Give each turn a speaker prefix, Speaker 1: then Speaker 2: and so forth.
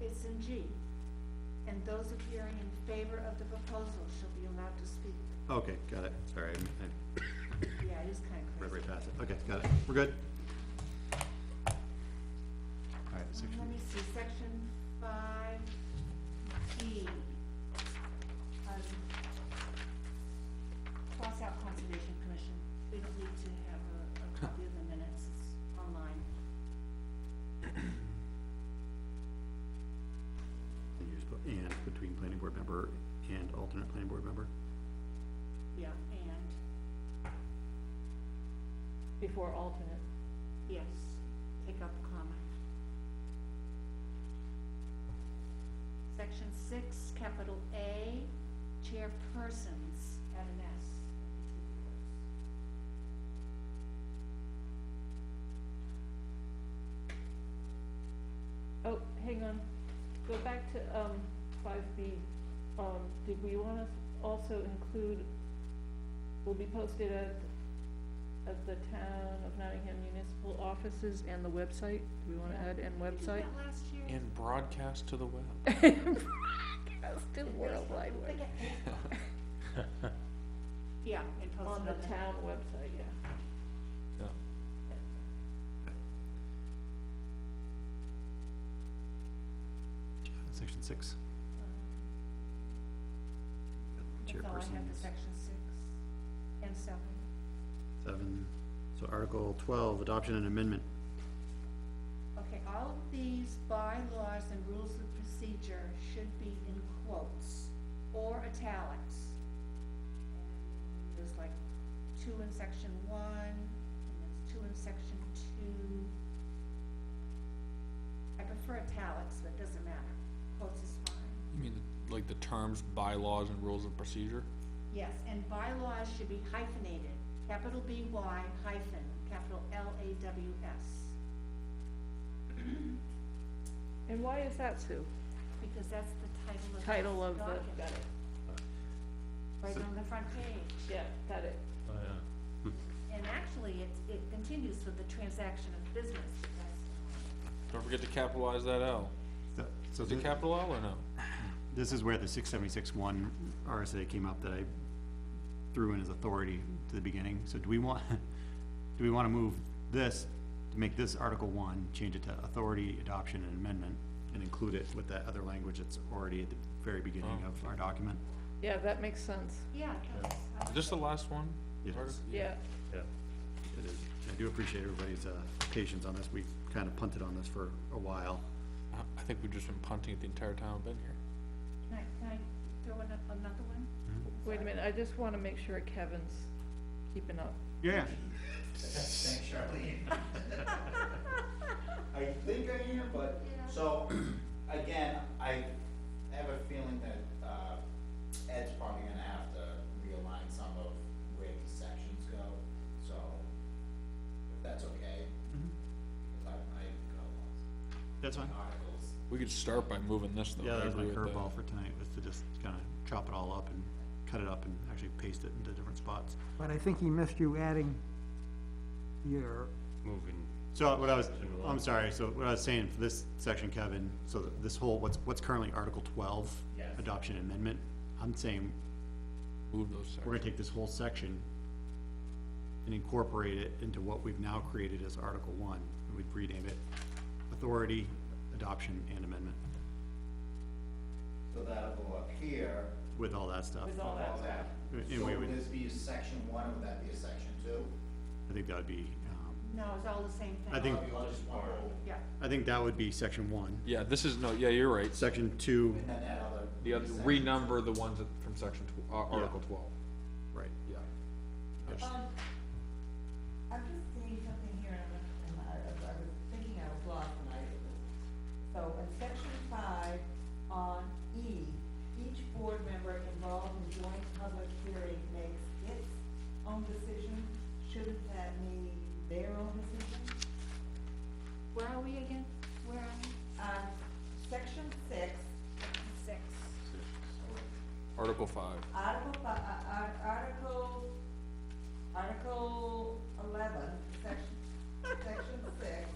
Speaker 1: It's in G. And those appearing in favor of the proposal shall be allowed to speak.
Speaker 2: Okay, got it, sorry, I- I
Speaker 1: Yeah, it is kind of
Speaker 2: read
Speaker 1: crazy.
Speaker 2: right past it, okay, got it, we're good. All right, section,
Speaker 1: Um, Let me see, section five D. Um, Cross out Conservation Commission, we don't need to have a, a copy of the minutes, it's online.
Speaker 2: you just put and between planning board member and alternate planning board member.
Speaker 1: Yeah, and,
Speaker 3: before alternate.
Speaker 1: yes, take out the comma. Section six, capital A, chairpersons, add an S.
Speaker 3: Oh, hang on, go back to, um, five B. Um, did we wanna also include, will be posted at, at the town of Nottingham municipal offices and the website? Do we wanna add and
Speaker 1: We did
Speaker 3: website?
Speaker 1: that last year.
Speaker 4: And broadcast to the web.
Speaker 3: That's the World Wide Web.
Speaker 1: Yeah, and posted
Speaker 3: On the town website, yeah.
Speaker 2: Section six.
Speaker 1: That's all I have for
Speaker 2: Chairperson's
Speaker 1: section six and seven.
Speaker 2: seven, so Article twelve, adoption and amendment,
Speaker 1: Okay, all of these bylaws and rules of procedure should be in quotes or italics. And There's like two in section one, and there's two in section two. I prefer italics, but it doesn't matter. Quotes is fine.
Speaker 4: You mean like the terms, bylaws, and rules of procedure?
Speaker 1: Yes, and bylaws should be hyphenated, capital B Y hyphen, capital L A W S,
Speaker 3: And why is that, Sue?
Speaker 1: because that's the title of the
Speaker 3: Title of the,
Speaker 1: document,
Speaker 3: got it,
Speaker 1: right on the front page.
Speaker 3: yeah, got it.
Speaker 1: And actually, it, it continues with the transaction of business, because
Speaker 4: Don't forget to capitalize that L.
Speaker 2: so. so
Speaker 4: Is it
Speaker 2: thi-
Speaker 4: capital L or no?
Speaker 2: This is where the six seventy-six one RSA came up that I threw in as authority to the beginning, so do we want, do we wanna move this, to make this Article one, change it to authority, adoption, and amendment, and include it with that other language that's already at the very beginning of our document?
Speaker 3: Yeah, that makes sense,
Speaker 1: yeah, that's.
Speaker 4: Is this the last one?
Speaker 2: Yes.
Speaker 4: Article-
Speaker 3: yeah.
Speaker 2: Yeah. It is, I do appreciate everybody's, uh, patience on this, we kinda punted on this for a while.
Speaker 4: I- I think we've just been punting it the entire time I've been here.
Speaker 1: Can I, can I throw in a- another one?
Speaker 3: Wait a minute, I just wanna make sure Kevin's keeping up.
Speaker 2: Yeah.
Speaker 5: Thanks, Charlene. I think I am, but,
Speaker 1: Yeah.
Speaker 5: so, again, I have a feeling that, uh, Ed's probably gonna have to realign some of where these sections go, so, if that's okay.
Speaker 3: Mm-hmm.
Speaker 5: Because I, I go
Speaker 2: That's fine.
Speaker 5: on articles.
Speaker 4: We could start by moving this though.
Speaker 2: Yeah,
Speaker 4: I
Speaker 2: that was my
Speaker 4: agree with
Speaker 2: curveball for tonight, was to just kinda chop it all up and cut it up and actually paste it into different spots.
Speaker 6: But I think he missed you adding your,
Speaker 7: moving.
Speaker 2: So what I was, I'm sorry, so what I was saying for this section, Kevin, so that this whole, what's, what's currently Article twelve?
Speaker 5: Yes.
Speaker 2: Adoption amendment, I'm saying,
Speaker 4: Move those sections.
Speaker 2: we're gonna take this whole section and incorporate it into what we've now created as Article one, and we'd rename it Authority, Adoption, and Amendment,
Speaker 5: So that'll go up here.
Speaker 2: with all that stuff.
Speaker 3: With all that
Speaker 5: all that.
Speaker 2: And
Speaker 5: So
Speaker 2: we
Speaker 5: would
Speaker 2: would-
Speaker 5: this be a section one, or would that be a section two?
Speaker 2: I think that would be, um,
Speaker 1: No, it's all the same thing.
Speaker 2: I think-
Speaker 5: Or you just want to-
Speaker 1: Yeah,
Speaker 2: I think that would be section one.
Speaker 4: Yeah, this is, no, yeah, you're right.
Speaker 2: Section two,
Speaker 5: And then that other.
Speaker 4: The other,
Speaker 5: section.
Speaker 4: renumber the ones that- from section tw- uh, Article twelve.
Speaker 2: right,
Speaker 4: Yeah.
Speaker 8: Um, I'm just seeing something here, and I'm- and I, I was thinking I was lost, and I, so in section five, on E, each board member involved in joint public hearing makes its own decision, shouldn't that mean their own decision?
Speaker 1: where are we again? Where are we?
Speaker 8: Um, section six,
Speaker 1: Six.
Speaker 4: Article five.
Speaker 8: article, fi- uh, uh, article, article eleven, section, section six,